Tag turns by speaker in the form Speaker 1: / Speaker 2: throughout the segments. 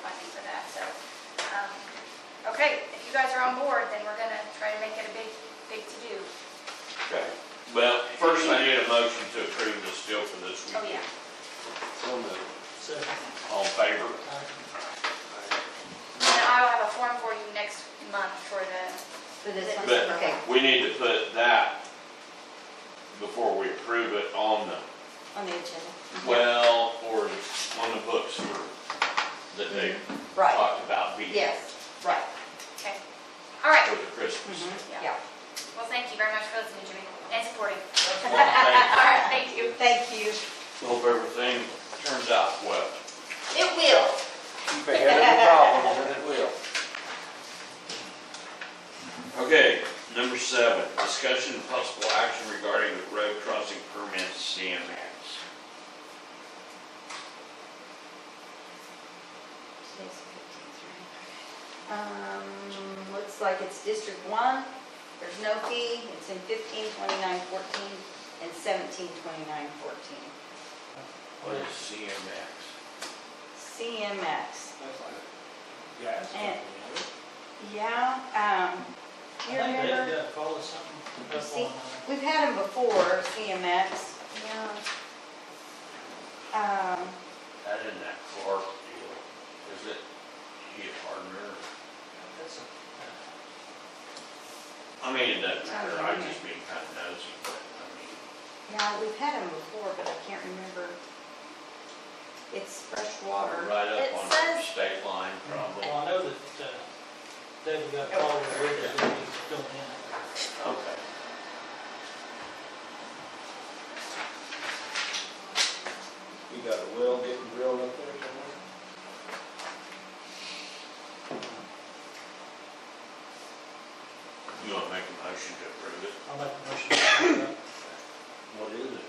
Speaker 1: um, okay, if you guys are on board, then we're gonna try to make it a big, big to-do.
Speaker 2: Okay.
Speaker 3: Well, first
Speaker 2: First
Speaker 3: I
Speaker 2: thing-
Speaker 3: need a motion to approve this deal for this
Speaker 1: Oh,
Speaker 3: weekend.
Speaker 1: yeah.
Speaker 2: So moved.
Speaker 4: Second.
Speaker 3: All in favor?
Speaker 1: And I will have a form for you next month for the,
Speaker 5: For this one,
Speaker 3: But-
Speaker 5: okay,
Speaker 3: We need to put that before we approve it on the,
Speaker 5: on the agenda.
Speaker 3: well, or on the books for, that they
Speaker 5: Right,
Speaker 3: talked about being
Speaker 5: yes, right,
Speaker 1: okay. All right,
Speaker 3: for the Christmas.
Speaker 5: mhm,
Speaker 1: Yeah.
Speaker 5: yeah.
Speaker 1: well, thank you very much for listening to me and supporting. Mm-hmm.
Speaker 3: Well, thank-
Speaker 1: All right, thank you.
Speaker 5: Thank you.
Speaker 3: Hope everything turns out well.
Speaker 5: It will.
Speaker 2: Keep ahead of the problems and it will.
Speaker 3: Okay, number seven, discussion and possible action regarding the road crossing permit CMX.
Speaker 5: Today's the 15th, right? Um, looks like it's District One, there's no fee, it's in fifteen twenty-nine fourteen and seventeen twenty-nine fourteen.
Speaker 3: What is CMX?
Speaker 5: CMX,
Speaker 4: Guys.
Speaker 5: And- yeah, um, do you remember?
Speaker 4: Yeah, call us something.
Speaker 5: You see, we've had them before, CMX,
Speaker 1: Yeah.
Speaker 5: um,
Speaker 3: That in that Clark deal, is it, he a partner?
Speaker 4: That's a-
Speaker 3: I mean, it doesn't matter, I'm just being kind of nosy, but, I mean,
Speaker 5: yeah, we've had them before, but I can't remember. It's fresh water.
Speaker 3: right
Speaker 1: It
Speaker 3: up on the
Speaker 1: says-
Speaker 3: state line probably.
Speaker 4: Well, I know that, uh, David got a call with Rick, that he's going in.
Speaker 3: Okay.
Speaker 2: You got a well getting drilled up there somewhere?
Speaker 3: You wanna make a motion to approve it?
Speaker 4: I'll make a motion. to approve
Speaker 2: What is it?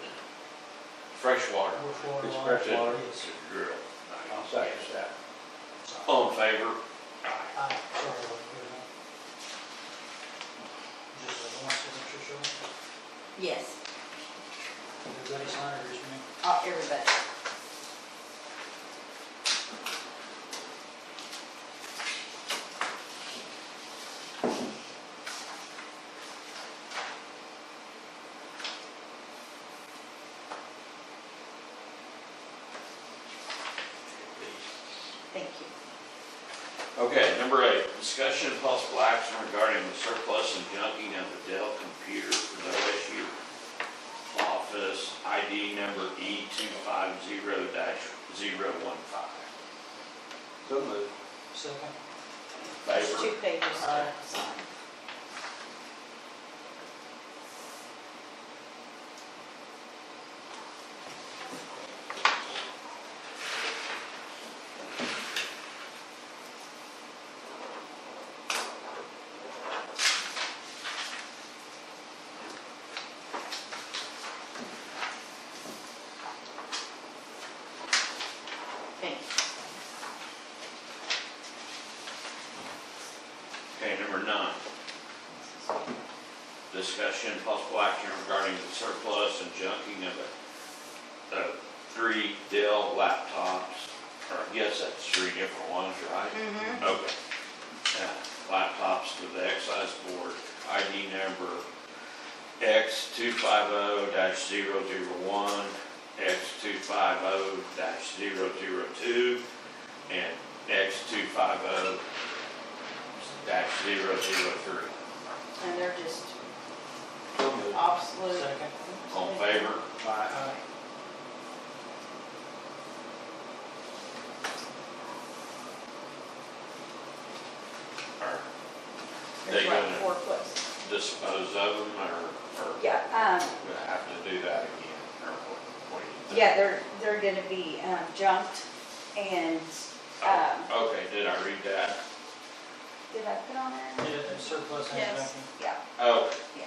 Speaker 3: Freshwater.
Speaker 4: that. We're for
Speaker 2: It's
Speaker 4: law.
Speaker 2: fresh water.
Speaker 3: It's
Speaker 4: Yes.
Speaker 3: a drill.
Speaker 2: I'll second that.
Speaker 3: All in favor?
Speaker 4: Ah, sorry, I'll get it out. Just uh, one signature, sure.
Speaker 5: Yes,
Speaker 4: Everybody sign it, or just me?
Speaker 5: uh, everybody. Thank you.
Speaker 3: Okay, number eight, discussion and possible action regarding the surplus and junking of the Dell computer for the OSU office, ID number E two five zero dash zero one five.
Speaker 2: So moved.
Speaker 4: Second.
Speaker 5: There's
Speaker 3: Favor?
Speaker 5: two pages to
Speaker 4: Aye.
Speaker 5: sign. Thank
Speaker 3: Okay,
Speaker 5: you.
Speaker 3: number nine. Discussion and possible action regarding the surplus and junking of the, the three Dell laptops, or I guess that's three different ones, right?
Speaker 5: Mhm.
Speaker 3: Okay. Now, Laptops to the excise board, ID number X two five oh dash zero zero one, X two five oh dash zero zero two, and X two five oh dash zero zero three.
Speaker 5: And they're just
Speaker 2: So moved.
Speaker 5: obsolete.
Speaker 4: Second.
Speaker 3: All in favor?
Speaker 2: Aye.
Speaker 4: Aye.
Speaker 3: Or
Speaker 5: There's
Speaker 3: They
Speaker 5: like
Speaker 3: gonna-
Speaker 5: four places.
Speaker 3: dispose of them, or, or
Speaker 5: Yeah, um,
Speaker 3: we have to do that again, or what, what do you think?
Speaker 5: yeah, they're, they're gonna be um, junked and, um,
Speaker 3: Oh, Okay, did I read that?
Speaker 5: did I put on there?
Speaker 4: Yeah, surplus and
Speaker 1: Yes.
Speaker 4: vacuum.
Speaker 5: Yeah,
Speaker 3: Oh,
Speaker 5: yeah.